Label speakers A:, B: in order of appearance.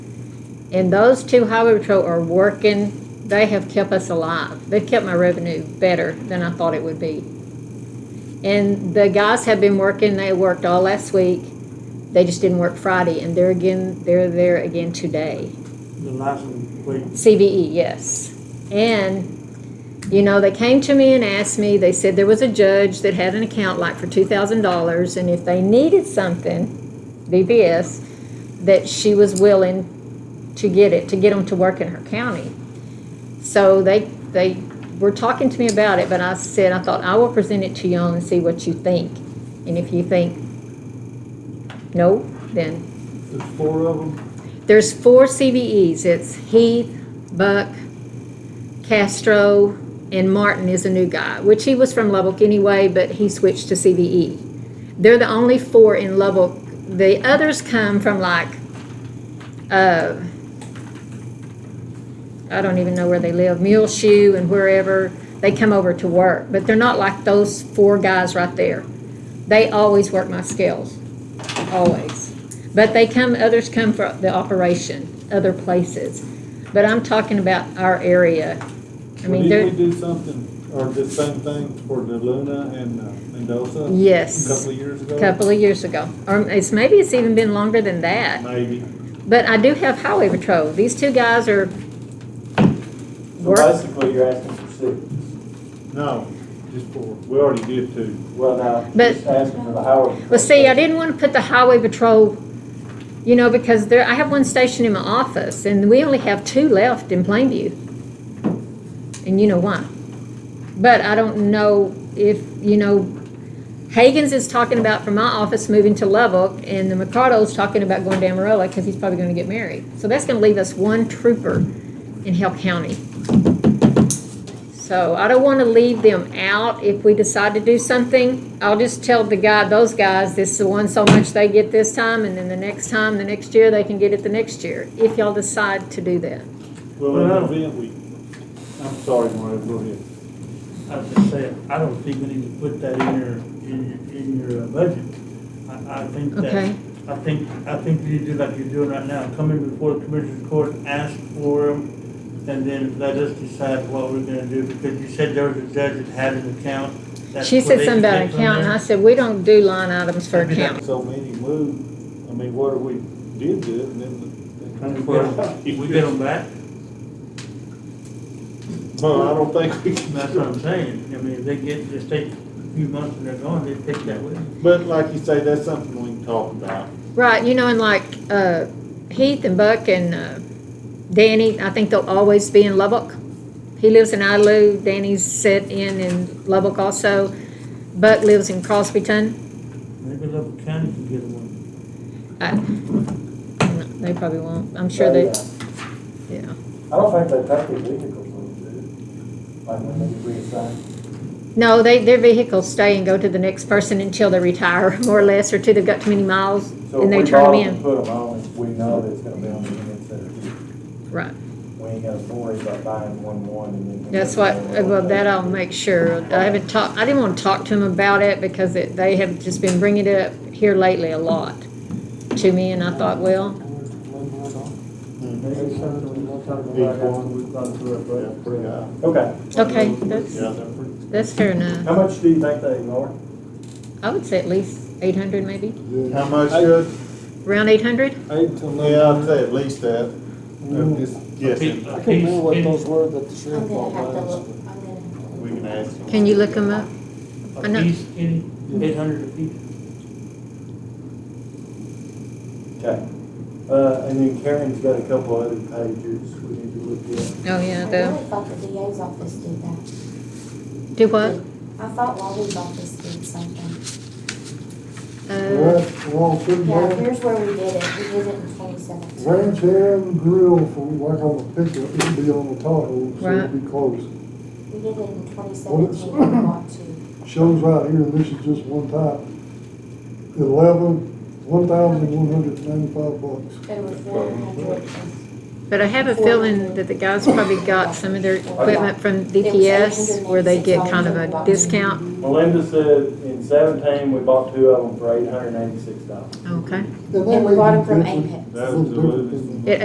A: And those two highway patrol are working, they have kept us alive. They've kept my revenue better than I thought it would be. And the guys have been working, they worked all last week. They just didn't work Friday and they're again, they're there again today.
B: The last one,
A: CVE, E, yes. And, you know, they came to me and asked me, they said there was a judge that had an account like for two thousand dollars, and if they needed something, BBS, that she was willing to get it, to get them to work in her county. So they, they were talking to me about it, but I said, I thought, I will present it to y'all and see what you think. And if you think, no, then
B: wait, the four of them,
A: there's four CVEs. It's Heath, Buck, Castro, and Martin is a new guy, which he was from Lubbock anyway, but he switched to CVE. They're the only four in Lubbock. The others come from like, uh, I don't even know where they live, Mule Shoe and wherever. They come over to work, but they're not like those four guys right there. They always work my skills always. But they come, others come for the operation, other places. But I'm talking about our area. I mean,
C: Did we
A: they're,
C: do something, or the same thing for the Luna and uh, Mendoza? A
A: yes,
C: couple of years ago?
A: a couple of years ago. Or it's, maybe it's even been longer than that.
C: Maybe.
A: But I do have highway patrol. These two guys are,
D: So
A: Work.
D: basically, you're asking for six.
C: No, just four. We already did two.
D: Well, now,
A: But-
D: you're just asking for the highway.
A: well, see, I didn't want to put the highway patrol, you know, because there, I have one station in my office and we only have two left in Plainview. And you know why. But I don't know if, you know, Hagan's is talking about from my office moving to Lubbock, and the Mercado's talking about going to Amarillo because he's probably going to get married. So that's going to leave us one trooper in Hill County. So I don't want to leave them out if we decide to do something. I'll just tell the guy, those guys, this is the one so much they get this time, and then the next time, the next year, they can get it the next year, if y'all decide to do that.
C: Well,
B: Well, I
C: in
B: don't-
C: the event we, I'm sorry, Mario, go ahead.
B: I was just saying, I don't think we need to put that in your, in your, in your uh, budget. I, I think that,
A: Okay.
B: I think, I think you do like you're doing right now, come in before the commissioner's court, ask for them, and then let us decide what we're gonna do, because you said there was a judge that had an account. That's
A: She
B: what
A: said
B: they
A: something about
B: picked from
A: account, and
B: there.
A: I said, we don't do line items for
B: Maybe
A: account.
C: So many moved, I mean, what if we did do it and then?
B: And
C: the-
B: we get 'em- We get them back,
C: Well, I don't think we can.
B: that's what I'm saying, I mean, if they get, just take a few months and they're gone, they take that with them.
C: But like you say, that's something we can talk about.
A: Right, you know, and like uh, Heath and Buck and uh, Danny, I think they'll always be in Lubbock. He lives in Idlew. Danny's set in in Lubbock also. Buck lives in Crosbyton.
B: Maybe Level County can get one.
A: I, they probably won't. I'm sure they. Yeah.
D: I don't think they take their vehicles when they do. Like when they reassign.
A: No, they their vehicles stay and go to the next person until they retire, more or less, or till they've got too many miles
D: So
A: and they
D: if we
A: turn
D: borrow
A: them
D: them,
A: in.
D: put them on, we know that it's gonna be on the end instead of two.
A: Right.
D: We ain't gotta worry about buying one, one and then.
A: That's what, well, that I'll make sure. I haven't talked, I didn't want to talk to him about it because it, they have just been bringing it up here lately a lot to me and I thought, well,
D: Maybe something we don't talk
C: Big
D: about after
C: one.
D: we've gone through
C: Yeah,
D: it,
C: pretty high.
D: but. Okay.
A: okay, that's,
C: Yeah, they're pretty.
A: that's fair enough.
D: How much do you think they ignore?
A: I would say at least eight hundred maybe,
C: How much should?
A: around eight hundred?
C: Eight to eleven. Yeah, I'd say at least that.
E: Mm.
C: I'm just guessing.
B: I
F: I can't remember what those were that the sheriff
G: I'm
F: bought
G: gonna have to
F: last.
G: look, I'm gonna have to look.
C: We can ask.
A: Can you look them up? I
B: A
A: know.
B: piece, any, eight hundred a piece.
D: Okay. Uh, and then Karen's got a couple other pages we need to look at.
A: Oh, yeah,
G: I
A: the,
G: really thought the DA's office did that.
A: do what?
G: I thought Wally's office did something.
A: Uh,
E: Well, good
G: Yeah,
E: man,
G: here's where we did it, we did it in twenty seventeen.
E: ranch hand grill for, like on the pickup, it'd be on the Tahoe, so it'd be close.
G: We did it in twenty
E: it's-
G: seventeen, we bought two.
E: Shows right here, this is just one type, eleven, one thousand one hundred ninety-five bucks.
G: There was one hundred. and-
A: but I have a feeling that the guys probably got some of their equipment from DPS where they get kind of a discount.
D: Melinda said in seventeen, we bought two of them for eight hundred and eighty-six dollars.
A: Okay.
E: And they
G: And
E: may
G: we
E: be
G: bought them from
E: different-
G: Apex.
C: That was the
E: Little different than
C: lowest.
E: that.